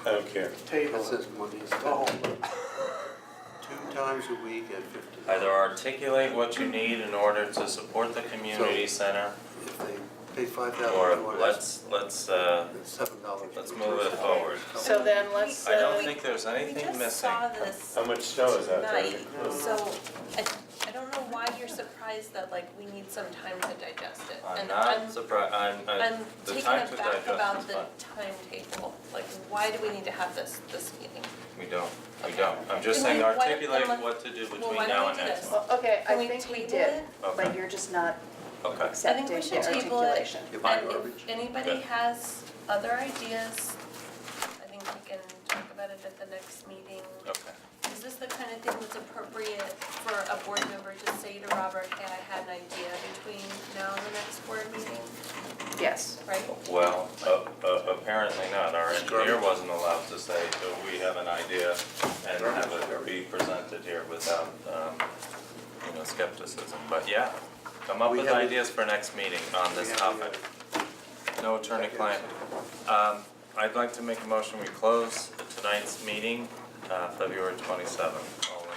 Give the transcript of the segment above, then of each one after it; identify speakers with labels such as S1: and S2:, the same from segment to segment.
S1: I don't care.
S2: table
S3: This
S2: it,
S3: is money.
S2: the
S4: Oh,
S2: whole thing. Two times a week at fifty.
S5: Either articulate what you need in order to support the community center,
S3: If they pay five
S5: or
S3: thousand dollars,
S5: let's, let's, uh,
S3: it's seven dollars.
S5: let's move it forward.
S6: So then let's,
S5: I don't
S6: uh,
S5: think there's
S7: We
S5: anything
S7: just
S5: missing. Oh,
S7: saw this
S1: How much snow is out there?
S7: tonight, so I, I don't know why you're surprised that like we need some time to digest it.
S5: I'm
S7: And
S5: not surprised, I'm,
S7: I'm
S5: I'm, the
S7: taken
S5: time to
S7: aback
S5: digest
S7: about
S5: is
S7: the
S5: fine.
S7: timetable, like why do we need to have this, this meeting?
S5: We don't, we don't, I'm just
S7: Then
S5: saying
S7: why- why-
S5: articulate
S7: then let-
S5: what to do between
S7: Well, why
S5: now
S7: don't we
S5: and
S7: do
S5: next
S7: this?
S5: month.
S6: well, okay,
S7: Can
S6: I
S7: we
S6: think we
S7: table
S6: did,
S7: it?
S5: Okay,
S6: but you're just not
S5: okay.
S6: accepting
S7: we
S6: the
S7: should table it.
S6: articulation.
S3: You buy
S7: And
S3: garbage?
S7: if anybody
S5: Okay.
S7: has other ideas, I think we can talk about it at the next meeting.
S5: Okay,
S7: Is this the kind of thing that's appropriate for a board member to say to Robert, hey, I had an idea between now and the next board meeting,
S6: Yes,
S7: right?
S5: well, uh, uh, apparently not, our engineer
S3: Garbage.
S5: wasn't allowed to say, so we have an idea and have it be presented here without, um, you know, skepticism, but yeah. Come up
S3: We
S5: with
S3: have-
S5: ideas for next meeting on
S3: We
S5: this
S3: have, uh,
S5: topic, no attorney-client. Um, I'd like to make a motion, we close tonight's meeting, uh, February twenty-seventh, all in,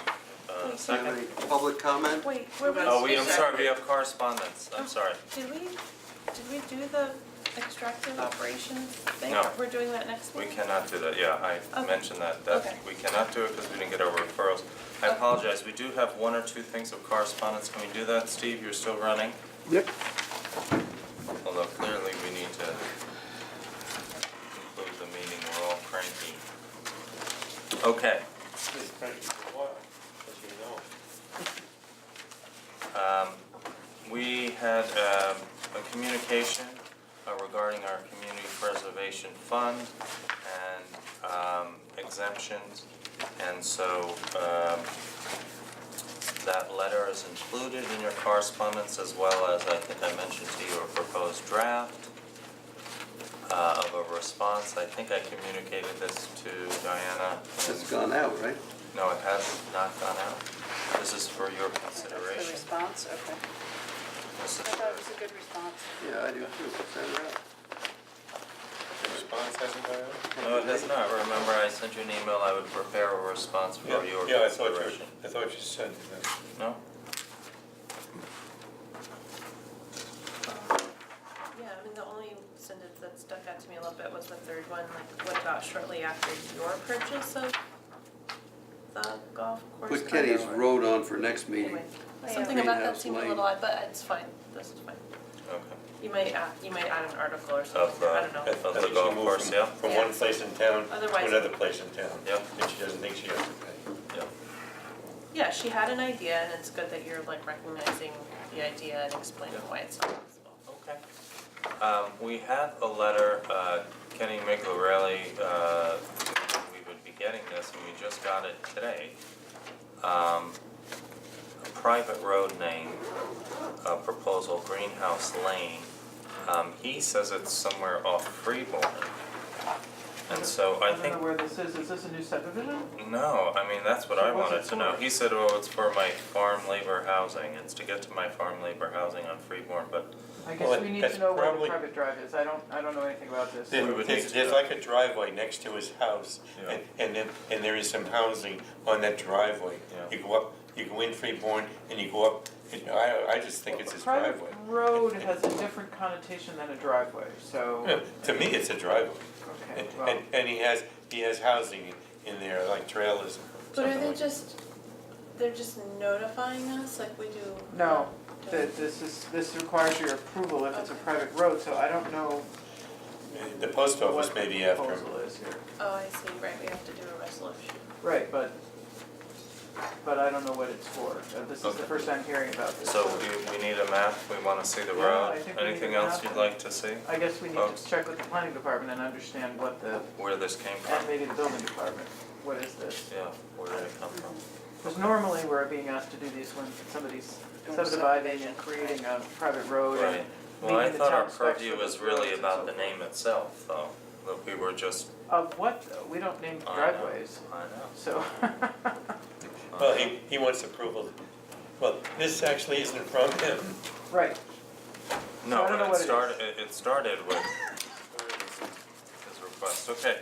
S5: uh,
S3: Do you have
S5: second.
S3: any public comment?
S7: Wait, were we?
S5: Oh, we, I'm sorry, we have correspondence, I'm sorry.
S7: Did we, did we do the extractive operations thing?
S5: No.
S7: We're doing that next
S5: We
S7: week?
S5: cannot do that, yeah, I
S7: Okay.
S5: mentioned that, that,
S7: Okay.
S5: we cannot do it because we didn't get our referrals. I
S7: Okay.
S5: apologize, we do have one or two things of correspondence, can we do that, Steve, you're still running?
S3: Yep.
S5: Although clearly we need to conclude the meeting, we're all cranky. Okay,
S1: This country for a while, as you know.
S5: um, we had, um, a communication uh, regarding our community preservation fund and, um, exemptions. And so, um, That letter is included in your correspondence as well as, I think I mentioned to you, a proposed draft uh, of a response. I think I communicated this to Diana.
S3: It's gone out, right?
S5: No, it has not gone out. This is for your
S6: so that's the
S5: consideration.
S6: response, okay.
S5: This
S6: I
S5: is
S6: thought it was
S5: for-
S6: a good response.
S3: Yeah, I do too. Send it out.
S1: The response hasn't gone out?
S5: No, it has not. Remember, I sent you an email, I would prepare a response for your consideration.
S1: Yeah, I thought you, I thought you said that.
S5: No?
S7: Yeah, I mean, the only sentence that stuck out to me a little bit was the third one, like, what about shortly after your purchase of the golf course?
S3: Put Kenny's
S7: condo?
S3: road on for next meeting.
S7: Anyway, Something
S3: Yeah.
S7: about that
S3: Greenhouse
S7: seemed a
S3: Lane.
S7: little odd, but it's fine, this is fine.
S5: Okay.
S7: You might add, you might add an article or
S5: Of,
S7: something, I don't know.
S5: uh, of
S1: I
S5: the
S1: think she
S5: golf
S1: moved
S5: course,
S1: from-
S5: yeah?
S1: From
S7: Yeah.
S1: one place in town to
S7: Otherwise-
S1: another place in town.
S5: Yep.
S1: And she doesn't think she has to pay.
S5: Yeah.
S7: Yeah, she had an idea and it's good that you're like recognizing the idea and explaining why it's not possible.
S5: Okay. Um, we had a letter, uh, Kenny Miglarelli, uh, we would be getting this, and we just got it today. Um, a private road name, uh, proposal, Greenhouse Lane. Um, he says it's somewhere off Freeborn. And so I
S4: I
S5: think
S4: don't know where this is, is this a new subdivision?
S5: No, I mean, that's what I
S4: So what's
S5: wanted
S4: it
S5: to know.
S4: for?
S5: He said, oh, it's for my farm labor housing, it's to get to my farm labor housing on Freeborn, but
S4: I
S1: Well,
S4: guess we need
S1: that's
S4: to know where the
S1: probably-
S4: private drive is, I don't, I don't know anything about this.
S5: we would need
S1: There's,
S5: to
S1: there's
S5: know.
S1: like a driveway next to his house,
S5: Yeah.
S1: and, and then, and there is some housing on that driveway.
S5: Yeah.
S1: You go up, you go in Freeborn, and you go up, and I, I just think it's his
S4: Private
S1: driveway.
S4: road has a different connotation than a driveway, so,
S1: Yeah, To me, it's a driveway,
S4: okay,
S1: and,
S4: well,
S1: and, and he has, he has housing in there, like trailers,
S7: But are
S1: something
S7: they
S1: like.
S7: just, they're just notifying us like we do?
S4: no, that this is, this requires your approval if it's a
S7: Okay.
S4: private road, so I don't know
S1: The post office
S4: what the
S1: may be after him.
S4: proposal is here.
S7: Oh, I see, right, we have to do a resolution.
S4: Right, but, but I don't know what it's for, Uh, this is
S5: Okay.
S4: the first I'm hearing about this.
S5: So we, we need a map, we wanna see the
S4: Yeah,
S5: road,
S4: I think we need
S5: anything
S4: a
S5: else
S4: map.
S5: you'd like to see?
S4: I guess we need
S1: um,
S5: Folks.
S4: to check with the planning department and understand what the,
S5: Where this came
S4: and
S5: from,
S4: maybe the building department, what is this?
S5: yeah, where did it come from?
S4: Because normally we're being asked to do these when somebody's subdividing and creating a private road
S5: Right,
S4: and
S5: well, I
S4: meaning the
S5: thought our
S4: town specs
S5: purview
S4: for
S5: was
S4: those roads
S5: really
S4: and
S5: about
S4: so
S5: the
S4: forth.
S5: name itself, though, that we were just,
S4: of what though? We don't name
S5: I know.
S4: driveways,
S5: I know.
S4: so.
S5: I
S1: Well,
S5: know.
S1: he, he wants approval, well, this actually isn't from him.
S4: Right,
S5: No,
S4: I don't know what it
S5: but it
S4: is.
S5: started, it, it started with his request, okay.